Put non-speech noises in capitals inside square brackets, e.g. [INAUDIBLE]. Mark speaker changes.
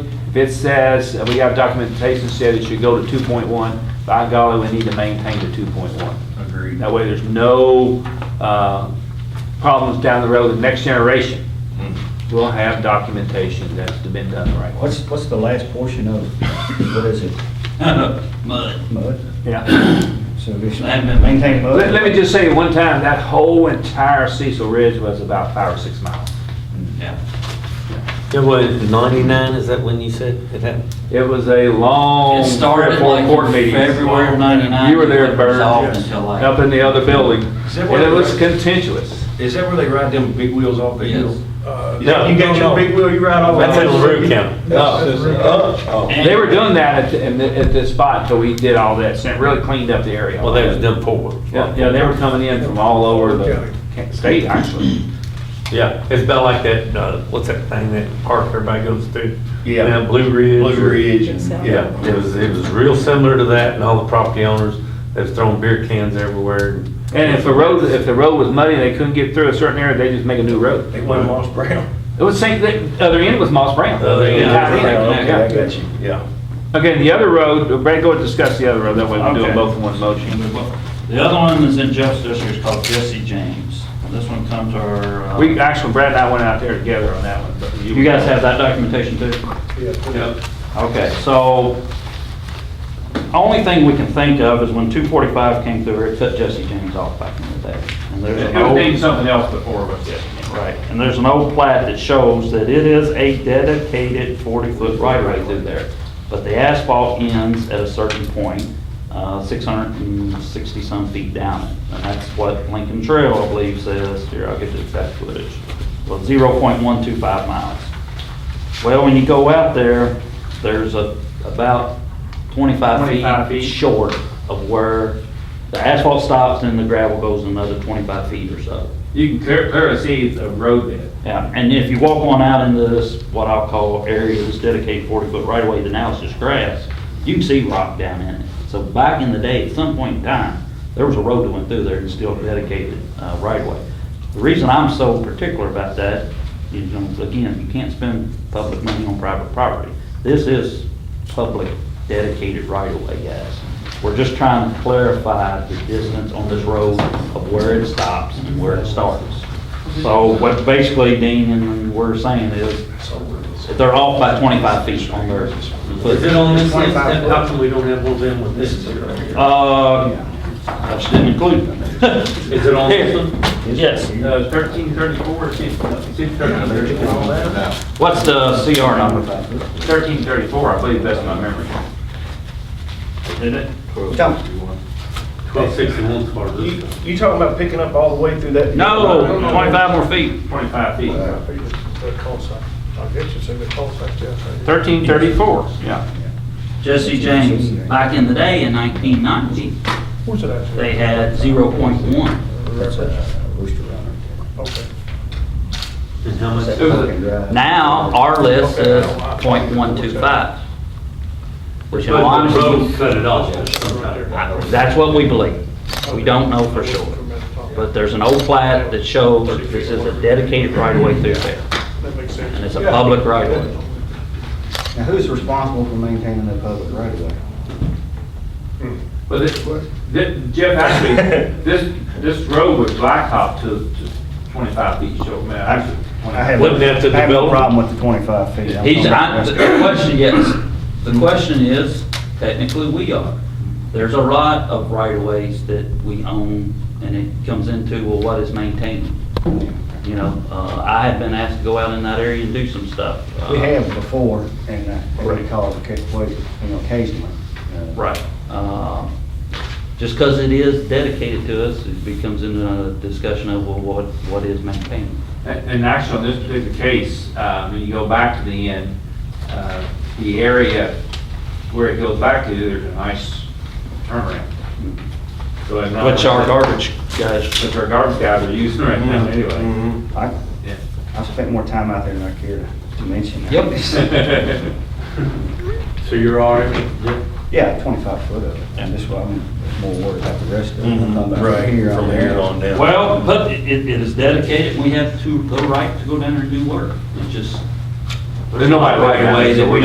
Speaker 1: If it says, uh, we have documentation said it should go to 2.1, by golly, we need to maintain the 2.1.
Speaker 2: Agreed. [LAUGHS]
Speaker 1: That way, there's no uh, problems down the road, the next generation will have documentation that's been done the right way.
Speaker 3: What's, what's the last portion of, what is it,
Speaker 2: Mud.
Speaker 3: mud?
Speaker 1: Yeah.
Speaker 3: So we should
Speaker 2: Let me-
Speaker 3: maintain mud?
Speaker 1: Let let me just say, one time, that whole entire Cecil Ridge was about five or six miles.
Speaker 2: Yeah.
Speaker 4: It was 99, is that when you said it happened?
Speaker 1: It was a long,
Speaker 2: It
Speaker 1: three or
Speaker 2: started
Speaker 1: four
Speaker 2: like
Speaker 1: court
Speaker 2: in
Speaker 1: meetings.
Speaker 2: February of 99.
Speaker 1: You were there,
Speaker 2: It
Speaker 1: Bert,
Speaker 2: resolved
Speaker 1: yes.
Speaker 2: until like-
Speaker 1: up in the other building.
Speaker 5: Is that
Speaker 1: And
Speaker 5: where
Speaker 1: it
Speaker 5: they-
Speaker 1: was contentious.
Speaker 5: Is that where they ride them big wheels off the
Speaker 2: Yes.
Speaker 5: hill? You
Speaker 4: No,
Speaker 5: got your big wheel, you ride off.
Speaker 4: That's in LaRue County.
Speaker 5: Uh,
Speaker 2: And-
Speaker 1: They were doing that at, the- in the- at this spot until we did all this, and it really cleaned up the area.
Speaker 4: Well, they was done forward.
Speaker 1: Yeah, yeah, they were coming in from all over the ca- state, actually.
Speaker 4: Yeah, it's about like that, uh, what's that thing that park everybody goes to?
Speaker 5: Yeah.
Speaker 4: Down Blue Ridge.
Speaker 5: Blue Ridge and,
Speaker 4: Yeah, it was, it was real similar to that and all the property owners that's throwing beer cans everywhere.
Speaker 1: And if the road, if the road was muddy and they couldn't get through a certain area, they just make a new road.
Speaker 5: They went Moss Brown.
Speaker 1: It was same, the other end was Moss Brown.
Speaker 4: Other end.
Speaker 1: Yeah, yeah,
Speaker 5: Okay,
Speaker 1: yeah.
Speaker 5: I got you.
Speaker 4: Yeah.
Speaker 1: Okay, the other road, Brad, go and discuss the other road, that way we can do
Speaker 2: Okay.
Speaker 1: them both in one motion.
Speaker 2: The other one is in Jeff's district, it's called Jesse James. This one comes our. uh,
Speaker 1: We, actually, Brad and I went out there together on that one. but
Speaker 2: You guys have that documentation too? Yep. Okay, so only thing we can think of is when 245 came through, it cut Jesse James off back in the day. And there's
Speaker 1: It
Speaker 2: an
Speaker 1: would have
Speaker 2: old-
Speaker 1: been something else before, but yeah.
Speaker 2: Right, and there's an old plat that shows that it is a dedicated 40-foot right-of-way through there, but the asphalt ends at a certain point, uh, 660-some feet down it. And that's what Lincoln Trail, I believe, says, here, I'll get the exact footage, well, 0.125 miles. Well, when you go out there, there's a, about
Speaker 1: 25
Speaker 2: 25
Speaker 1: feet.
Speaker 2: feet short of where the asphalt stops and the gravel goes another 25 feet or so.
Speaker 1: You can clear- clearly see it's a road bed.
Speaker 2: Yeah, and if you walk on out into this, what I'll call area that's dedicated forty foot right away, the now it's just grass, you can see rock down in it. So back in the day, at some point in time, there was a road that went through there and still dedicated, uh, right away. The reason I'm so particular about that is, you know, again, you can't spend public money on private property. This is public dedicated right away, guys. We're just trying to clarify the distance on this road of where it stops and where it starts. So what basically Dean and we're saying is, if they're off by 25 feet on their
Speaker 6: Is it
Speaker 2: foot.
Speaker 6: on this list, then how come we don't have one of them with this?
Speaker 2: Uh, I just didn't include them. [LAUGHS]
Speaker 6: Is it on this one?
Speaker 1: [LAUGHS]
Speaker 2: Yes.
Speaker 1: Uh, thirteen thirty-four, six, uh, six thirty-four.
Speaker 2: What's the CR number?
Speaker 1: Thirteen thirty-four, I believe that's my memory.
Speaker 2: Isn't it?
Speaker 3: Don't-
Speaker 6: Twelve sixty-one's part of this.
Speaker 5: You you talking about picking up all the way through that?
Speaker 2: No, 25 more feet.
Speaker 1: Twenty-five feet.
Speaker 7: The call sign, I guess it's in the call sign, yes.
Speaker 1: Thirteen thirty-four, yeah.
Speaker 2: Jesse James, back in the day in 1990,
Speaker 7: Where's it at?
Speaker 2: they had 0.1.
Speaker 3: That's a rooster runner.
Speaker 7: Okay.
Speaker 6: And how much?
Speaker 3: That's
Speaker 1: It was a-
Speaker 3: fucking dry.
Speaker 2: Now, our list is .125. Which in
Speaker 6: But the road
Speaker 2: honesty,
Speaker 6: cut it off, there's some kind of-
Speaker 2: I- that's what we believe. We don't know for sure. But there's an old plat that shows this is a dedicated right-of-way through there,
Speaker 7: That makes sense.
Speaker 2: and it's a public right-of-way.
Speaker 3: Now, who's responsible for maintaining the public right of way?
Speaker 1: Well, this, thi- Jeff, [LAUGHS] actually, this, this road was blacktop to, to twenty-five feet short, man, actually. 25.
Speaker 3: have-
Speaker 4: Wouldn't that the
Speaker 3: I have no
Speaker 4: developer-
Speaker 3: problem with the twenty-five feet. I'm
Speaker 2: He's, I,
Speaker 3: not-
Speaker 2: the question, yes, the question is, technically, we are. There's a lot of right-of-ways that we own, and it comes into, well, what is maintained? You know, uh, I have been asked to go out in that area and do some stuff.
Speaker 3: We
Speaker 2: Uh,
Speaker 3: have before, and uh, and
Speaker 2: Right.
Speaker 3: we call it, ca- well, you know, occasionally. uh,
Speaker 2: Right. Um, Just because it is dedicated to us, it becomes into a discussion of, well, what, what is maintained?
Speaker 1: And and actually, on this particular case, um, when you go back to the end, uh, the area where it goes back to, there's a nice turnaround. So I'm not-
Speaker 2: Which our Mm-hmm. garbage guys,
Speaker 1: Which our garbage guys are using right now, anyway.
Speaker 6: Mhm.
Speaker 3: I,
Speaker 1: Yeah.
Speaker 3: I spent more time out there than I care to- to mention.
Speaker 2: Yep.
Speaker 1: [LAUGHS]
Speaker 6: So you're all right? with it?
Speaker 3: Yeah, twenty-five foot of it, and that's why I'm more worried about the rest of it. I'm talking about from here on down.
Speaker 6: down.
Speaker 2: well, but it, it it is dedicated, we have to, the right to go down there and do work. It's just.
Speaker 1: There's nobody right now.
Speaker 2: Ways that we